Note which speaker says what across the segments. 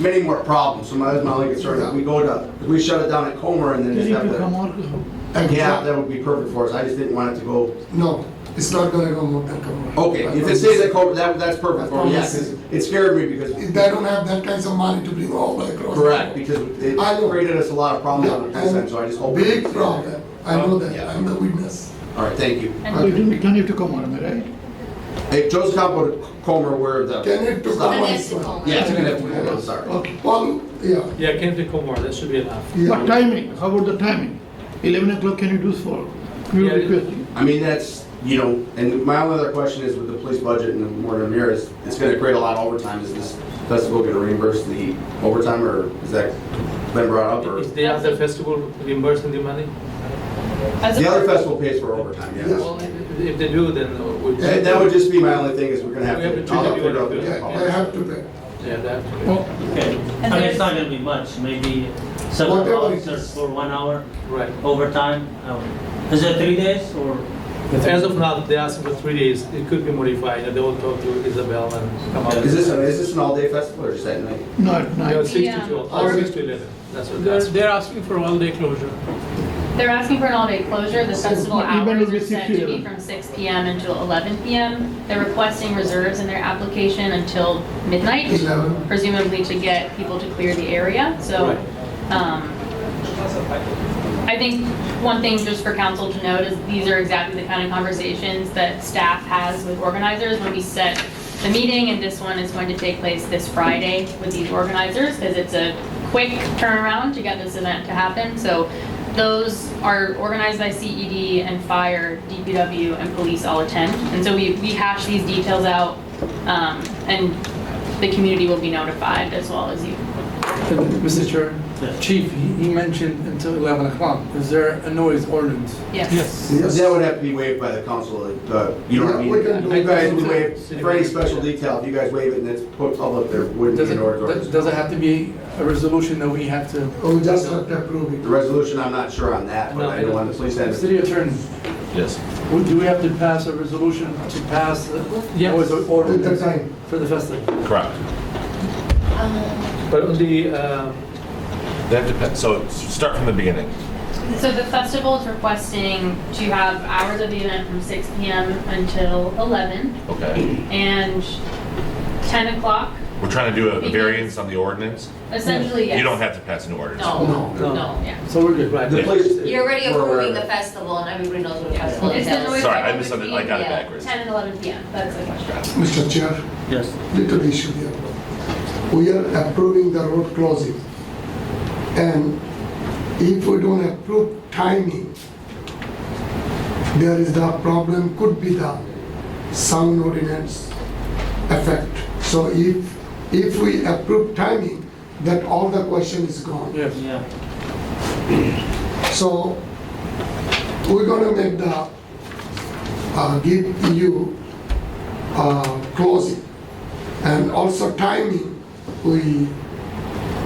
Speaker 1: many more problems, so that's my only concern, if we go to, if we shut it down at Comer and then
Speaker 2: Then
Speaker 1: just
Speaker 2: it
Speaker 1: have
Speaker 2: will come
Speaker 1: to.
Speaker 2: out,
Speaker 3: And
Speaker 1: Yeah,
Speaker 3: so-
Speaker 1: that would be perfect for us, I just didn't want it to go,
Speaker 3: No, it's not gonna come out and come out.
Speaker 1: okay,
Speaker 3: I
Speaker 1: if it
Speaker 3: promise.
Speaker 1: stays at Comer, that, that's
Speaker 3: I
Speaker 1: perfect for me, yeah,
Speaker 3: promise.
Speaker 1: 'cause it scared me because.
Speaker 3: They don't have that kinds of money to bring all the way across.
Speaker 1: Correct, because it
Speaker 3: I know.
Speaker 1: created us a lot of problems on the past end, so I just hope.
Speaker 3: Big problem, I know that,
Speaker 1: Yeah.
Speaker 3: I'm the witness.
Speaker 1: All right, thank you.
Speaker 2: but it will continue to come out, am I right?
Speaker 1: Hey, Joseph Campbell, Comer, where the.
Speaker 3: Can it to
Speaker 1: Stop.
Speaker 3: come
Speaker 4: Can
Speaker 3: out?
Speaker 4: it to come out?
Speaker 1: Yeah, it's gonna have to come out, sorry.
Speaker 2: Okay.
Speaker 3: Paul, yeah,
Speaker 5: Yeah, Kent to Kumar, that should be enough.
Speaker 3: yeah.
Speaker 2: But timing, how about the timing? 11 o'clock, can you do for, we
Speaker 5: Yeah.
Speaker 2: were requesting.
Speaker 1: I mean, that's, you know, and my only other question is with the police budget and the more than here is, it's gonna create a lot of overtime. Is this festival gonna reimburse the overtime or is that been brought up or?
Speaker 5: Is the other festival reimbursing the money?
Speaker 6: As a
Speaker 1: The other
Speaker 6: part-
Speaker 1: festival pays for overtime, yes.
Speaker 5: Well, if if they do, then uh, we.
Speaker 1: That that would just be my only thing is we're gonna have
Speaker 5: We have
Speaker 1: to.
Speaker 5: to
Speaker 1: I'll have to
Speaker 5: do it.
Speaker 1: figure out
Speaker 3: Yeah,
Speaker 1: the-
Speaker 3: I have to pay.
Speaker 5: Yeah, that.
Speaker 2: Oh,
Speaker 7: Okay,
Speaker 6: And
Speaker 7: I mean,
Speaker 6: there's-
Speaker 7: it's not gonna be much, maybe seven
Speaker 3: Whatever it
Speaker 7: officers
Speaker 3: is.
Speaker 7: for one hour
Speaker 5: Right.
Speaker 7: overtime. Um, Is it three days or?
Speaker 5: As of now, they asked for three days. It could be modified, and they will talk to Isabel and come out.
Speaker 1: Is this, is this an all-day festival or is that night?
Speaker 2: no, at
Speaker 5: Yeah,
Speaker 2: night.
Speaker 5: six
Speaker 6: Yeah.
Speaker 5: to twelve, or six to eleven. That's what they
Speaker 8: They're,
Speaker 5: asked.
Speaker 8: they're asking for all-day closure.
Speaker 6: They're asking for an all-day closure, the festival
Speaker 2: Even
Speaker 6: hours
Speaker 2: if
Speaker 6: are
Speaker 2: it's
Speaker 6: set to be
Speaker 2: 11.
Speaker 6: from six PM until eleven PM. They're requesting reserves in their application until midnight,
Speaker 3: 11.
Speaker 6: presumably to get people to clear the area, so.
Speaker 5: Right.
Speaker 6: um, I think one thing just for council to note is these are exactly the kind of conversations that staff has with organizers when we set the meeting, and this one is going to take place this Friday with these organizers, because it's a quick turnaround to get this event to happen, so those are organized by CED and fire, DPW, and police all attend, and so we, we hash these details out, um, and the community will be notified as well as you.
Speaker 9: Mr. Chair,
Speaker 7: Yes.
Speaker 9: Chief, he he mentioned until 11 o'clock. Is there a noise ordinance?
Speaker 5: Yes.
Speaker 3: Yes.
Speaker 1: That would have to be waived by the council, uh, you know what I mean?
Speaker 3: Yeah, we can do
Speaker 1: You guys would
Speaker 5: that.
Speaker 1: waive, for any special detail, if you guys waive it and it's put public, there wouldn't
Speaker 9: Does
Speaker 1: be
Speaker 9: it,
Speaker 1: an order.
Speaker 9: does does it have to be a resolution that we have to?
Speaker 3: Oh, we just have to approve
Speaker 1: The
Speaker 3: it.
Speaker 1: resolution, I'm not sure on that, but
Speaker 5: No,
Speaker 1: I
Speaker 5: it
Speaker 1: know on the police end.
Speaker 9: City Attorney,
Speaker 5: Yes.
Speaker 9: would- do we have to pass a resolution to pass the
Speaker 5: Yes.
Speaker 9: noise
Speaker 3: With the
Speaker 9: ordinance
Speaker 3: time.
Speaker 9: for the festival?
Speaker 10: Correct.
Speaker 5: But on the, uh,
Speaker 10: They have to, pa- so start from the beginning.
Speaker 6: So the festival is requesting to have hours of the event from six PM until eleven
Speaker 10: Okay.
Speaker 6: and ten o'clock,
Speaker 10: We're trying to do a a variance on the ordinance.
Speaker 6: essentially, yes.
Speaker 10: You don't have to pass an ordinance.
Speaker 6: No,
Speaker 5: No.
Speaker 6: no, yeah.
Speaker 9: So we're good.
Speaker 5: right.
Speaker 1: The police.
Speaker 4: You're already
Speaker 1: we're aware
Speaker 4: approving
Speaker 1: of
Speaker 4: the
Speaker 1: it.
Speaker 4: festival and everybody knows what a festival is.
Speaker 6: It's the noise.
Speaker 10: Sorry, I
Speaker 6: level
Speaker 10: misunderstood.
Speaker 6: between,
Speaker 10: I got it
Speaker 6: yeah,
Speaker 10: backwards.
Speaker 6: Ten and eleven PM, that's the question.
Speaker 3: Mr. Chair,
Speaker 7: Yes.
Speaker 3: little issue here. We are approving the road closing. And if we don't approve timing, there is the problem, could be the sound ordinance effect. So if, if we approve timing, that all the question is gone.
Speaker 9: Yes.
Speaker 7: Yeah.
Speaker 3: So we're gonna make the, uh, give you, uh, closing. And also timing, we,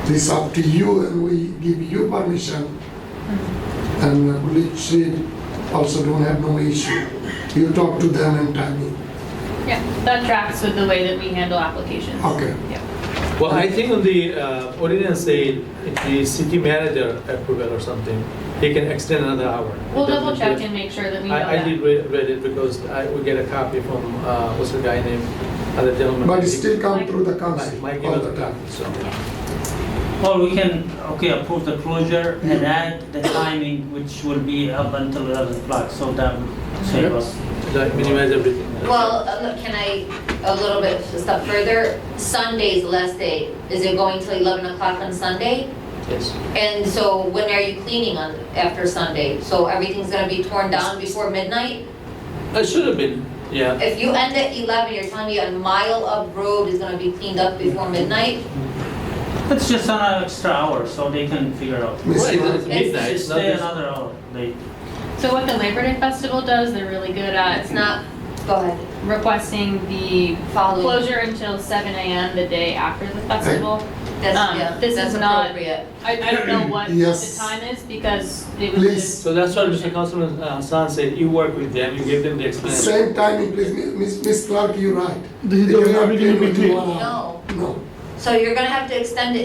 Speaker 3: this up to you and we give you permission. And Litchfield also don't have no issue. You talk to them and timing.
Speaker 6: Yeah, that tracks with the way that we handle applications.
Speaker 3: Okay.
Speaker 6: Yeah.
Speaker 5: Well, I think on the uh, ordinance say, if the city manager approval or something, he can extend another hour.
Speaker 6: We'll double check and make sure that we know
Speaker 5: I, I
Speaker 6: that.
Speaker 5: did read, read it because I, we get a copy from, uh, what's the guy named, other gentleman.
Speaker 3: But it still come through the
Speaker 5: Mike,
Speaker 3: council
Speaker 5: Mike gave
Speaker 3: all
Speaker 5: us a
Speaker 3: the time.
Speaker 5: copy, so.
Speaker 7: Or we can, okay, approve the closure and add the timing, which will be up until 11 o'clock, so that would save us.
Speaker 5: That minimize everything.
Speaker 4: Well, uh, look, can I, a little bit, a step further, Sunday's the last day, is it going till 11 o'clock on Sunday?
Speaker 5: Yes.
Speaker 4: And so when are you cleaning on, after Sunday? So everything's gonna be torn down before midnight?
Speaker 5: It should have been, yeah.
Speaker 4: If you end at 11, you're telling me a mile of road is gonna be cleaned up before midnight?
Speaker 7: It's just an extra hour, so they can figure out.
Speaker 3: Miss
Speaker 5: Well,
Speaker 3: Mar-
Speaker 5: it's midnight,
Speaker 7: Just
Speaker 5: it's not
Speaker 7: stay
Speaker 5: this-
Speaker 7: another hour late.
Speaker 6: So what the Labor Day Festival does, they're really good at
Speaker 4: It's not, go ahead,
Speaker 6: requesting the
Speaker 4: follow.
Speaker 6: closure until seven AM the day after the festival.
Speaker 4: That's,
Speaker 6: Um,
Speaker 4: yeah,
Speaker 6: this
Speaker 4: that's
Speaker 6: is not-
Speaker 4: appropriate.
Speaker 6: I, I don't know what
Speaker 3: Yes.
Speaker 6: the time is because it was.
Speaker 3: Please.
Speaker 5: So that's what Mr. Councilman uh, Hassan said, you work with them, you give them the explanation.
Speaker 3: Same timing, please, Miss Miss Clark, you're right.
Speaker 2: This is
Speaker 3: They
Speaker 2: the
Speaker 3: cannot
Speaker 2: only
Speaker 3: clean
Speaker 2: between-
Speaker 3: within one hour.
Speaker 4: No,
Speaker 3: uh, No.
Speaker 4: so you're gonna have to extend it